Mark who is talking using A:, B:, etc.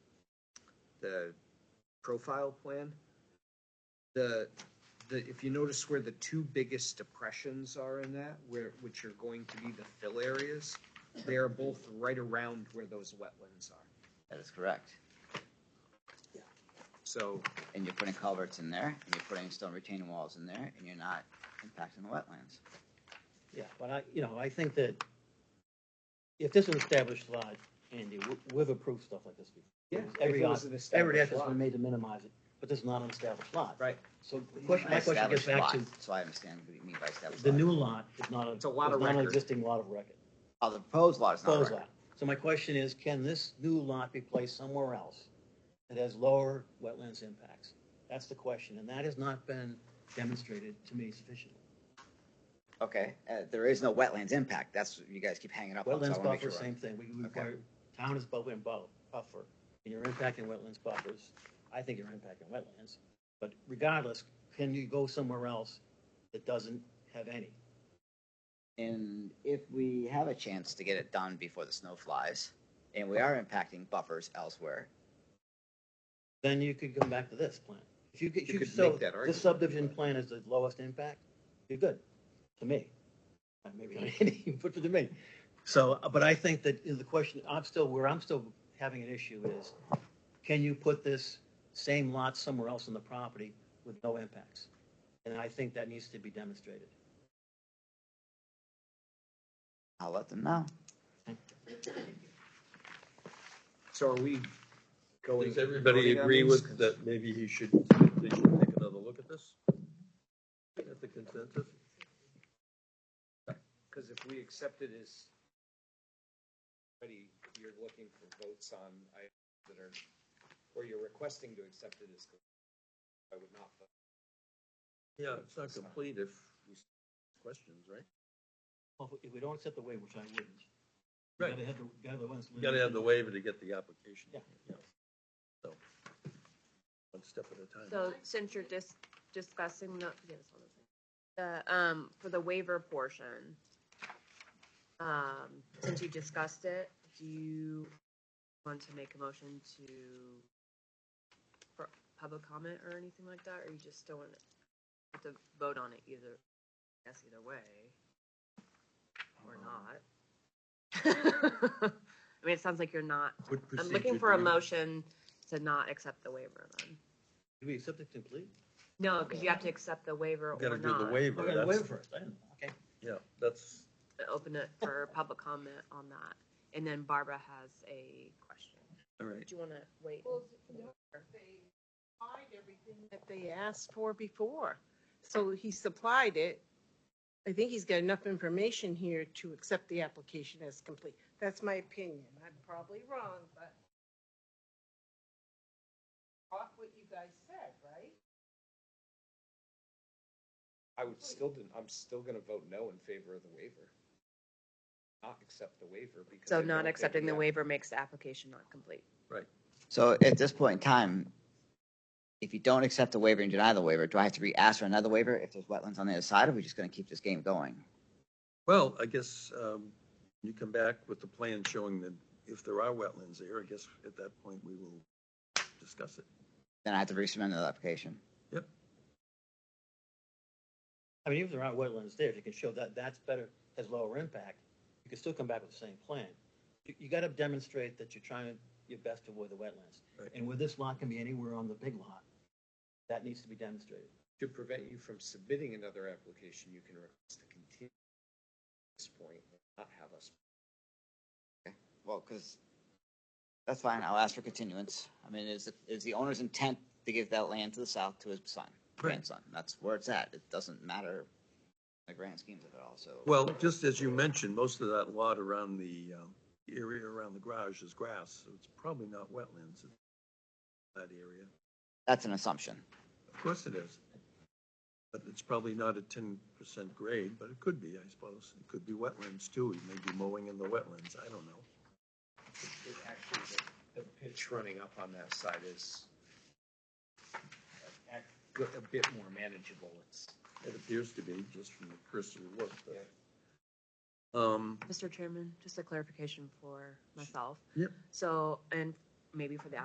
A: the profile plan, the, the, if you notice where the two biggest depressions are in that, where, which are going to be the fill areas, they are both right around where those wetlands are.
B: That is correct.
A: So,
B: And you're putting culverts in there, and you're putting stone retaining walls in there, and you're not impacting the wetlands.
C: Yeah, but I, you know, I think that if this is an established lot, Andy, we- we've approved stuff like this before.
A: yeah.
C: Every,
A: if it
C: odd-
A: was an
C: every
A: established
C: effort's
A: lot.
C: been made to minimize it, but this is not an established lot.
A: Right,
C: So the question, my question gets back to,
B: Established lot, So I understand what you mean by established
C: the
B: lot.
C: new lot is not a,
A: It's
C: is
A: a lot
C: not
A: of
C: an
A: record.
C: existing lot of record.
B: Oh, the proposed lot is not a
C: Close
B: record.
C: lot. So my question is, can this new lot be placed somewhere else that has lower wetlands impacts? That's the question, and that has not been demonstrated to me sufficiently.
B: Okay, uh, there is no wetlands impact, that's what you guys keep hanging up on, so I
C: Wetlands
B: wanna make
C: buffer,
B: sure.
C: same thing, we
B: Okay.
C: require, town is buffer and bu- buffer, and you're impacting wetlands buffers, I think you're impacting wetlands. But regardless, can you go somewhere else that doesn't have any?
B: And if we have a chance to get it done before the snow flies, and we are impacting buffers elsewhere,
C: Then you could come back to this plan. If you could,
A: You
C: you
A: could
C: so,
A: make that argument.
C: this subdivision plan is the lowest impact, you're good, to me. Uh, Maybe not any, but to me. So, uh, but I think that is the question, I'm still, where I'm still having an issue is, can you put this same lot somewhere else on the property with no impacts? And I think that needs to be demonstrated.
B: I'll let them know.
A: so are we going?
D: Does everybody
A: voting on
D: agree
A: these?
D: with that maybe he should, they should take another look at this? At the consensus?
A: Because if we accept it as, already, you're looking for votes on items that are, or you're requesting to accept it as, I would not vote.
D: Yeah, it's not complete if we s- questions, right?
C: Well, if we don't accept the waiver, which I wouldn't.
D: Right.
C: Gotta have the, gotta have the ones.
D: You gotta have the waiver to get the application.
C: Yeah.
D: So, one step at a time.
E: So since you're just discussing the, yes, hold on a second. the, um, for the waiver portion, um, since you discussed it, do you want to make a motion to for public comment or anything like that, or you just still want to vote on it either, I guess either way? Or not? I mean, it sounds like you're not,
D: What
E: I'm
D: procedure
E: looking for a
D: do you-
E: motion to not accept the waiver then.
C: Do we accept it complete?
E: No, because you have to accept the waiver
D: You
E: or
D: Gotta do the
E: not.
D: waiver,
C: Okay, the waiver
D: that's,
C: first, I didn't, okay.
D: yeah, that's,
E: Open it for public comment on that. And then Barbara has a question.
D: all right.
E: Do you want to wait?
F: Well, no, they supplied everything that they asked for before. So he supplied it. I think he's got enough information here to accept the application as complete. That's my opinion. I'm probably wrong, but off what you guys said, right?
A: I would still, didn't- I'm still gonna vote no in favor of the waiver. Not accept the waiver because. I
E: So
A: don't
E: not
A: think
E: accepting the
A: app-
E: waiver makes the application not complete.
B: So at this point in time, if you don't accept the waiver and deny the waiver, do I have to re-ask for another waiver if there's wetlands on the other side, or are we just gonna keep this game going?
D: Well, I guess, um, you come back with the plan showing that if there are wetlands there, I guess at that point we will discuss it.
B: Then I have to resubmit another application.
C: I mean, even if there aren't wetlands there, if you can show that that's better, has lower impact, you can still come back with the same plan. You, you gotta demonstrate that you're trying your best to avoid the wetlands.
D: Right.
C: And where this lot can be anywhere on the big lot, that needs to be demonstrated.
A: To prevent you from submitting another application, you can request a continuance at this point, and not have us.
B: Well, because, that's fine, I'll ask for continuance. I mean, is, is the owner's intent to give that land to the south to his son, grandson? That's where it's at. It doesn't matter in the grand schemes of it all, so.
D: Well, just as you mentioned, most of that lot around the, um, area around the garage is grass, so it's probably not wetlands in that area.
B: That's an assumption.
D: Of course it is. But it's probably not a ten percent grade, but it could be, I suppose. It could be wetlands too. He may be mowing in the wetlands. I don't know.
A: It Actually, the the pitch running up on that side is uh, act- go- a bit more manageable. It's,
D: It appears to be just from the cursory look, but. Um,
E: Mr. Chairman, just a clarification for myself.
D: Yep.
E: So, and maybe for the